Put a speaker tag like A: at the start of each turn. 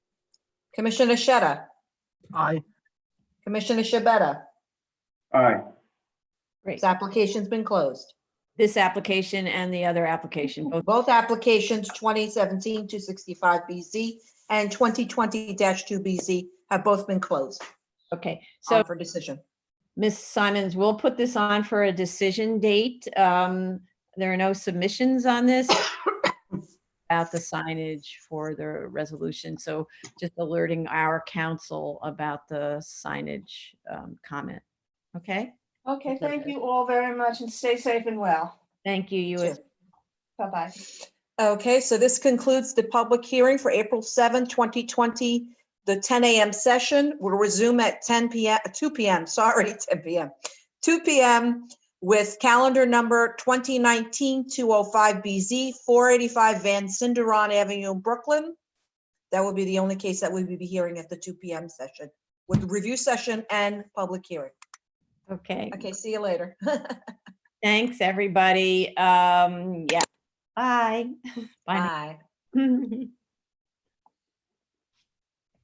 A: Commissioner Sheta,
B: Aye.
A: Commissioner Shabeta,
C: Aye.
A: this application's been closed.
D: This application and the other application, both
A: Both applications, 2017-265BZ and 2020-2BZ, have both been closed
D: Okay, so
A: on for decision.
D: Ms. Simons, we'll put this on for a decision date. Um, There are no submissions on this about the signage for the resolution, so just alerting our council about the signage um, comment. Okay,
E: Okay, thank you all very much and stay safe and well.
D: thank you, you
A: Sure.
D: as
E: Bye-bye.
A: Okay, so this concludes the public hearing for April 7, 2020, the 10 a.m. session. We'll resume at 10 p.m., 2 p.m., sorry, 10 p.m., 2 p.m. with calendar number 2019-205BZ, 485 Van Cinderon Avenue in Brooklyn. That will be the only case that we will be hearing at the 2 p.m. session, with review session and public hearing.
D: okay.
A: Okay, see you later.
D: Thanks, everybody. Um, Yeah, bye. Bye.
A: Bye.
D: now.